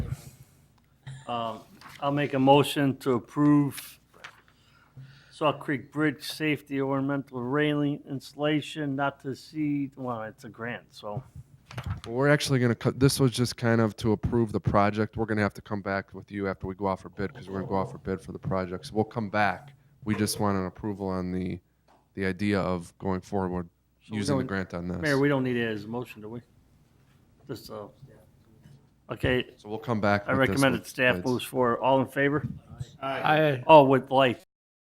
Um, I'll make a motion to approve Saw Creek Bridge Safety Ornamental Railing Installation not to exceed, well, it's a grant, so. Well, We're actually going to, this was just kind of to approve the project. We're going to have to come back with you after we go out for bid because we're going to go out for bid for the project. So we'll come back. We just want an approval on the, the idea of going forward we using the don't- grant on Mayor, this. we don't need it as a motion, do we? Just, uh, okay, So we'll come back. I with this recommend with that staff bids. moves forward. All in favor? Aye. Oh, with lights.